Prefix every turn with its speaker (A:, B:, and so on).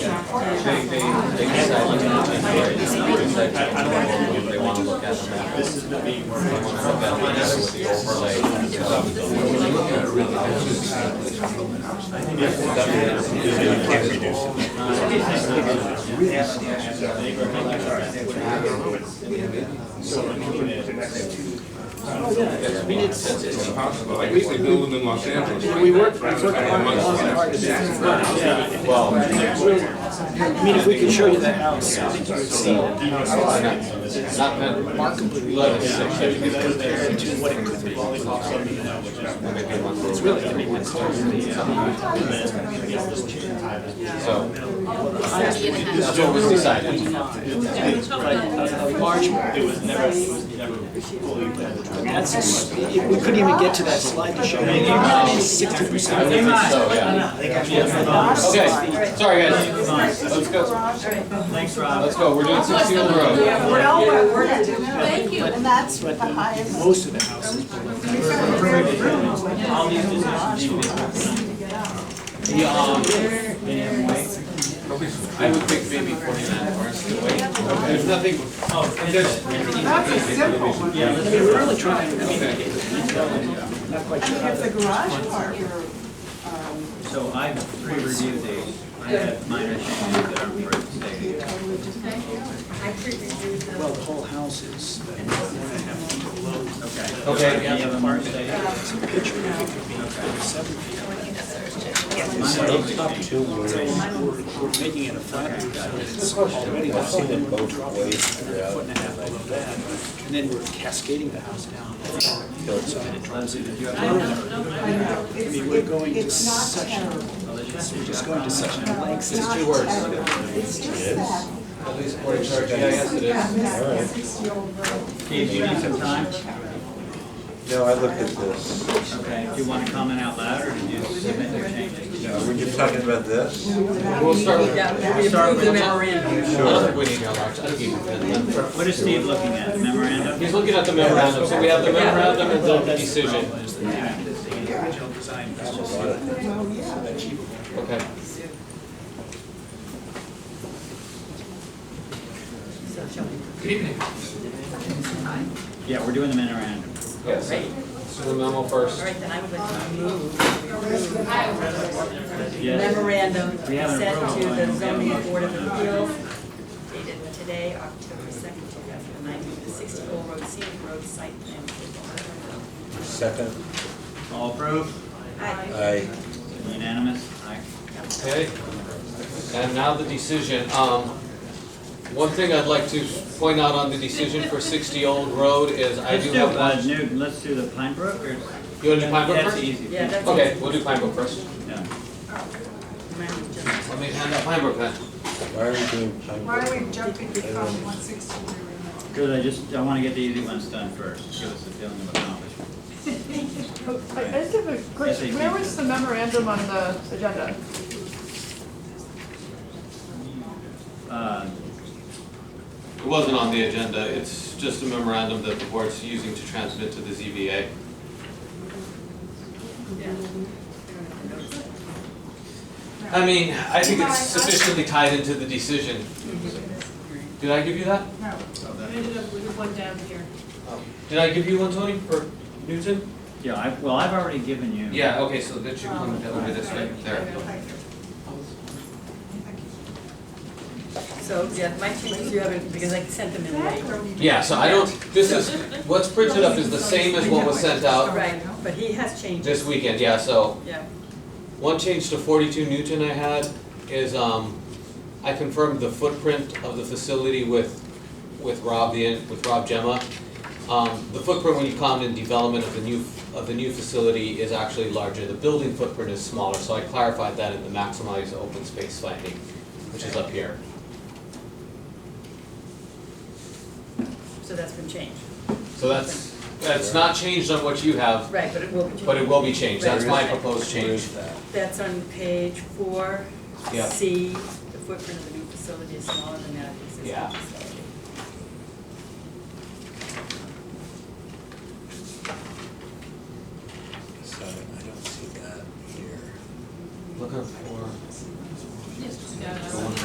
A: They, they, they decide what they want to do, they decide if they want to look at the map. This is the beam where. They want to look at the map with the overlay.
B: I mean, it's, it's impossible, like, we used to build them in Los Angeles.
C: We worked, we worked on it
B: Amongst-
C: as hard as that.
A: Well,
C: I mean, if we could show you the house, I think you would see
A: it's not that markedly less. It's really, I mean, it's totally. So. This is what was decided.
C: that's, it- we couldn't even get to that slide to show you. Sixty
A: I
C: percent.
A: think so, yeah. Okay, sorry guys, let's go,
D: Thanks, Rob.
A: let's go, we're doing sixty on the road.
E: We're all, we're at, thank you, and that's the highest.
C: Most of the houses.
D: All these decisions The, um, minimum wage.
A: I would think maybe forty-nine hours to wait. There's nothing,
D: Oh, and it's-
E: That's a simple one.
D: yeah,
C: I
D: let's-
C: mean, we're really trying, I mean,
B: Okay.
C: not quite
E: I
C: sure
E: mean,
C: how
E: if the
C: to.
E: garage part, you're, um,
D: So I pre-reviewed these, I have minor changes that aren't worth stating.
F: I could review them.
C: Well, the whole house is, but one and a half feet below
D: Okay.
A: Okay.
D: Do you have them marked today?
C: the picture. It could be seven feet.
D: Mine are
C: So
D: up
C: up to, so we're, we're making it a flat roof, so it's already a foot and a half below that. And then we're cascading the house down. So that it drops in. I mean, we're going to
E: it's not
C: such,
E: terrible.
C: we're just going to such lengths.
E: It's not terrible. It's just that, yeah, this sixty-year-old road.
D: Steve, do you need some time?
G: No, I looked at this.
D: Okay, do you want to comment out loud or did you submit your changes?
G: Were you talking about this?
A: we'll start with, I
D: Start with-
A: don't think we need our large, I think even ten.
D: What is Steve looking at, the memorandum?
A: He's looking at the memorandum, so we have the memorandum and the decision. Okay.
D: Yeah, we're doing the memorandum.
A: Yes. So the memo first.
F: Right, then I would like to move
D: Yes.
F: memorandum
D: We haven't
F: sent to
D: approved
F: the
D: one.
F: zoning board of appeals dated today, October second, two thousand nineteen, the sixty Old Road scenic road site plan. approval.
G: Second,
D: All approved?
F: Aye.
G: I,
D: Unanimous? Aye.
A: Okay, and now the decision. Um, One thing I'd like to point out on the decision for 60 Old Road is I
D: Let's
A: do
D: do,
A: have
D: uh,
A: one.
D: Newton, let's do the Pine Brook or?
A: You want to do Pine Brook
D: That's
A: first?
D: easy.
F: Yeah, that's.
A: Okay, we'll do Pine Brook first.
D: Yeah.
F: Mine just-
A: Let me hand out Pine Brook then.
G: why are we doing time?
E: Why are we jumping from one sixty to another?
D: Because I just, I want to get the easy ones done first, give us a feeling of accomplishment.
H: I I just have a
D: SAP.
H: question, where was the memorandum on the agenda?
D: Uh,
A: It wasn't on the agenda, it's just a memorandum that the board's using to transmit to the ZBA. I mean, I think it's sufficiently tied into the decision. Did I give you that?
E: No,
A: Did I give you one, Tony, for Newton?
D: Yeah, I, well, I've already given you.
A: Yeah, okay, so that should come over this way, there.
E: thank you.
F: So, yeah, my changes you haven't, because I sent them in late.
A: Yeah, so I don't, this is, what's printed up is the same as what was sent out
F: Right, but he has changes,
A: this weekend, yeah, so.
F: yeah.
A: One change to forty-two Newton I had is, um, I confirmed the footprint of the facility with, with Rob, the, en- with Rob Gemma. Um, the footprint when you count in development of the new, of the new facility is actually larger, the building footprint is smaller, so I clarified that in the maximize open space finding, which is up here.
F: So that's been changed.
A: So that's, that's not changed on what you have,
F: Right, but it will be changed.
A: But it will be changed, that's my proposed change.
F: That's on page four.
A: Yeah.
F: C, the footprint of the new facility is smaller than that of the existing
A: Yeah.
F: facility.